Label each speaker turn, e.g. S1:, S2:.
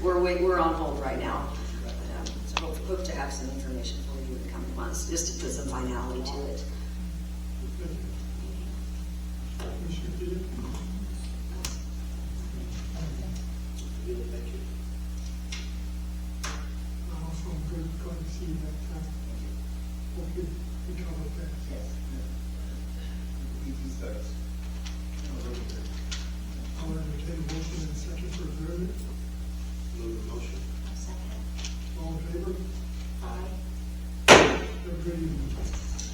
S1: wait, we're on hold right now. Um, So hope- hope to have some information for you in the coming months, just to put some finality to it.
S2: also good, good to see that, uh, okay, we covered that. I would entertain a motion